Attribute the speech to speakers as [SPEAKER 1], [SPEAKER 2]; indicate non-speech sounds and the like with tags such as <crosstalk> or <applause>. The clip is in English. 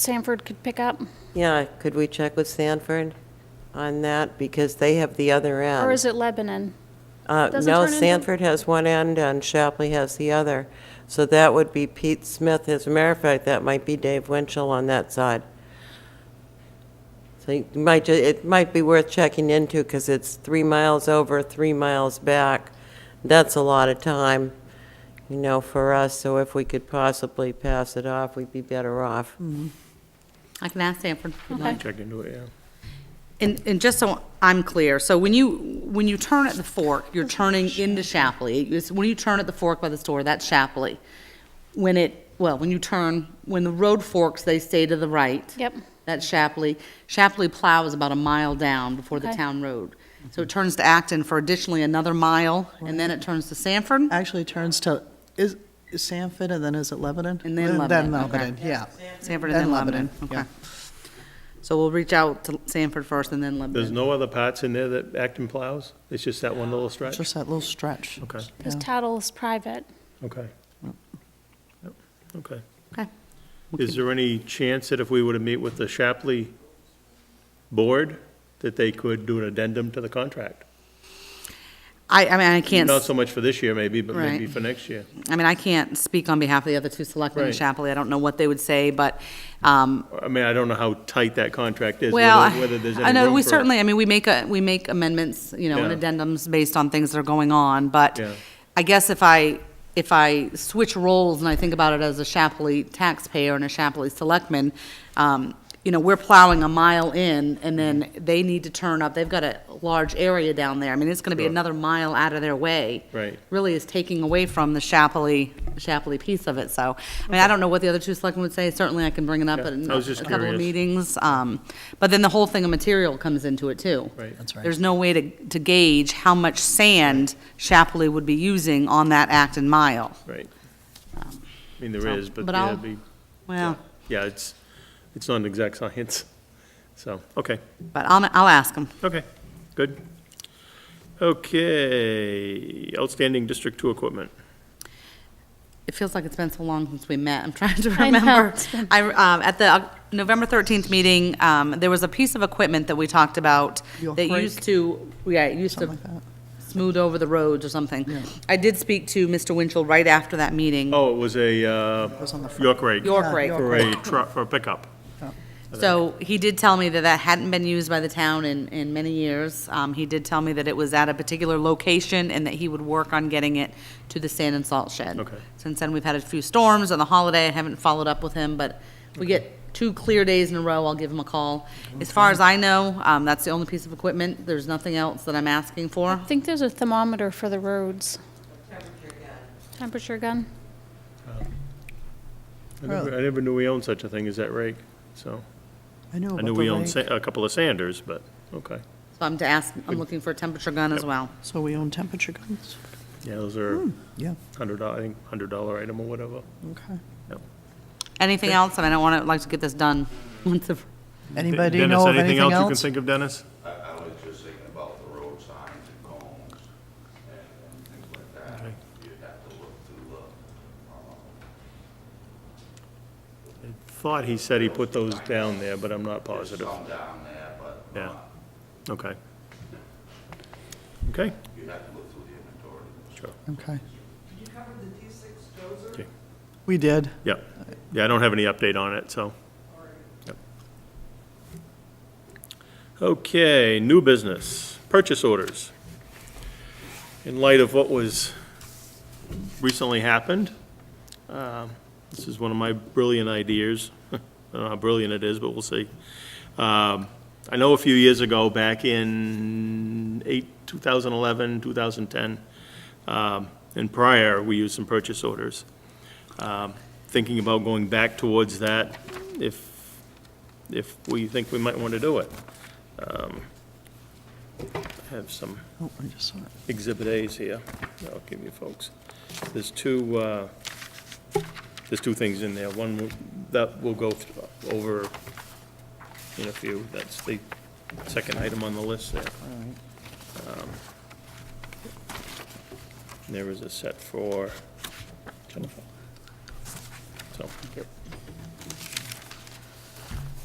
[SPEAKER 1] Sanford could pick up?
[SPEAKER 2] Yeah, could we check with Sanford on that? Because they have the other end.
[SPEAKER 1] Or is it Lebanon?
[SPEAKER 2] Uh,
[SPEAKER 1] doesn't
[SPEAKER 2] No,
[SPEAKER 1] turn into-
[SPEAKER 2] Sanford has one end and Shapley has the other. So that would be Pete Smith. As a matter of fact, that might be Dave Winchell on that side. So you might, ju- it might be worth checking into because it's three miles over, three miles back. That's a lot of time, you know, for us. So if we could possibly pass it off, we'd be better off.
[SPEAKER 3] I can ask Sanford.
[SPEAKER 4] Check into it, yeah.
[SPEAKER 3] And, and just so I'm clear, so when you, when you turn at the fork, you're turning into Shapley. It's when you turn at the fork by the store, that's Shapley. When it, well, when you turn, when the road forks, they stay to the right.
[SPEAKER 1] Yep.
[SPEAKER 3] That's Shapley. Shapley Plow is about a mile down before the
[SPEAKER 1] Okay.
[SPEAKER 3] town road. So it turns to Acton for additionally another mile, and then it turns to Sanford?
[SPEAKER 5] actually turns to, is is Sanford and then is it Lebanon?
[SPEAKER 3] And then Lebanon,
[SPEAKER 5] Then
[SPEAKER 3] okay.
[SPEAKER 5] Lebanon, yeah.
[SPEAKER 3] Sanford and then Lebanon, okay. So we'll reach out to Sanford first and then
[SPEAKER 4] There's
[SPEAKER 3] Lebanon.
[SPEAKER 4] no other parts in there that Acton plows? It's just that one little
[SPEAKER 5] yeah.
[SPEAKER 4] stretch?
[SPEAKER 5] Just that little stretch.
[SPEAKER 4] Okay,
[SPEAKER 1] Because
[SPEAKER 5] Yeah.
[SPEAKER 1] Tattle is private.
[SPEAKER 4] okay. Yep, Okay.
[SPEAKER 3] Okay.
[SPEAKER 4] Is there any chance that if we were to meet with the Shapley board, that they could do an addendum to the contract?
[SPEAKER 3] I, I mean, I can't.
[SPEAKER 4] Not so much for this year maybe, but maybe
[SPEAKER 3] Right.
[SPEAKER 4] for next year.
[SPEAKER 3] I mean, I can't speak on behalf of the other two selectmen in
[SPEAKER 4] Right.
[SPEAKER 3] Chapley. I don't know what they would say, but, um,
[SPEAKER 4] I mean, I don't know how tight that contract is,
[SPEAKER 3] well,
[SPEAKER 4] whether whether there's any
[SPEAKER 3] I know,
[SPEAKER 4] room
[SPEAKER 3] we
[SPEAKER 4] for-
[SPEAKER 3] certainly, I mean, we make, a- we make amendments, you know, and
[SPEAKER 4] Yeah.
[SPEAKER 3] addendums based on things that are going on, but
[SPEAKER 4] Yeah.
[SPEAKER 3] I guess if I, if I switch roles and I think about it as a Chapley taxpayer and a Chapley selectman, um, you know, we're plowing a mile in, and then
[SPEAKER 4] Mm-hmm.
[SPEAKER 3] they need to turn up, they've got a large area down there. I mean, it's gonna be
[SPEAKER 4] Sure.
[SPEAKER 3] another mile out of their way.
[SPEAKER 4] Right.
[SPEAKER 3] really is taking away from the Chapley, Chapley piece of it, so. I mean, I don't know what the other two selectmen would say, certainly I can bring it up
[SPEAKER 4] Yeah,
[SPEAKER 3] at a
[SPEAKER 4] I was just
[SPEAKER 3] a couple of
[SPEAKER 4] curious.
[SPEAKER 3] meetings. um, But then the whole thing of material comes into it too.
[SPEAKER 4] Right. That's
[SPEAKER 5] right.
[SPEAKER 3] There's no way to, to gauge how much sand Chapley would be using on that Acton mile.
[SPEAKER 4] Right. I mean, there
[SPEAKER 3] Um, so-
[SPEAKER 4] is, but
[SPEAKER 3] but
[SPEAKER 4] yeah,
[SPEAKER 3] I'll-
[SPEAKER 4] it'd be-
[SPEAKER 3] Well,
[SPEAKER 4] yeah, it's, it's not an exact science. <laughs> So, okay.
[SPEAKER 3] but I'll, I'll ask them.
[SPEAKER 4] Okay, good. Okay, outstanding District Two equipment.
[SPEAKER 3] It feels like it's been so long since we met. I'm <laughs> trying to
[SPEAKER 1] I know,
[SPEAKER 3] remember.
[SPEAKER 1] it's been-
[SPEAKER 3] I, um, at the uh, November 13th meeting, um, there was a piece of equipment that we talked about
[SPEAKER 5] Your
[SPEAKER 3] that
[SPEAKER 5] brake.
[SPEAKER 3] used to, yeah, it used to
[SPEAKER 5] Something like that.
[SPEAKER 3] smooth over the roads or something.
[SPEAKER 5] Yeah.
[SPEAKER 3] I did speak to Mr. Winchell right after that meeting.
[SPEAKER 4] Oh, it was a uh,
[SPEAKER 5] was on the front.
[SPEAKER 4] York rake.
[SPEAKER 3] York
[SPEAKER 5] Yeah,
[SPEAKER 3] rake.
[SPEAKER 5] York
[SPEAKER 4] For a truck, for a pickup.
[SPEAKER 3] So he did tell me that that hadn't been used by the town in, in many years. Um, he did tell me that it was at a particular location and that he would work on getting it to the sand and salt shed.
[SPEAKER 4] Okay.
[SPEAKER 3] Since then, we've had a few storms on the holiday. I haven't followed up with him, but we get two clear days in a row, I'll give him a call. As far as I know, um, that's the only piece of equipment. There's nothing else that I'm asking for.
[SPEAKER 1] I think there's a thermometer for the roads. Temperature gun.
[SPEAKER 4] I never- I never knew we owned such a thing as that rake, so.
[SPEAKER 5] I know
[SPEAKER 4] I
[SPEAKER 5] about
[SPEAKER 4] knew
[SPEAKER 5] the
[SPEAKER 4] we owned
[SPEAKER 5] rake.
[SPEAKER 4] sa- a couple of Sanders, but, okay.
[SPEAKER 3] So I'm to ask, I'm looking for a temperature gun as
[SPEAKER 4] Yep.
[SPEAKER 3] well.
[SPEAKER 5] So we own temperature guns?
[SPEAKER 4] Yeah, those are
[SPEAKER 5] Yeah,
[SPEAKER 4] hundred dollar, I think, hundred dollar item or whatever.
[SPEAKER 5] okay.
[SPEAKER 3] Anything else? And I don't want to, like to get this done. once the-
[SPEAKER 5] Anybody know of anything
[SPEAKER 4] Dennis, anything else you can
[SPEAKER 5] else?
[SPEAKER 4] think of, Dennis?
[SPEAKER 6] I, I was just thinking about the road signs and cones and, and things like that.
[SPEAKER 4] Okay.
[SPEAKER 6] You'd have to look through, uh, uh,
[SPEAKER 4] Thought he said he put those down there, but I'm not positive.
[SPEAKER 6] some down there, but uh,
[SPEAKER 4] Yeah, okay. Okay,
[SPEAKER 6] you'd have to look through the inventory.
[SPEAKER 4] sure,
[SPEAKER 5] Okay. We did.
[SPEAKER 4] yeah. Yeah, I don't have any update on it, so. Yep. Okay, new business, purchase orders. In light of what was recently happened, um, this is one of my brilliant ideas. <laughs> I don't know how brilliant it is, but we'll see. Um, I know a few years ago, back in eight, 2011, 2010, um, and prior, we used some purchase orders. Um, Thinking about going back towards that, if, if we think we might want to do it. Um, I Have some
[SPEAKER 5] Oh, I just saw it.
[SPEAKER 4] Exhibit A's here. I'll give you folks. There's two, uh, there's two things in there. One will- that we'll go th- over in a few. That's the second item on the list there. Um, There is a set for Jennifer. So,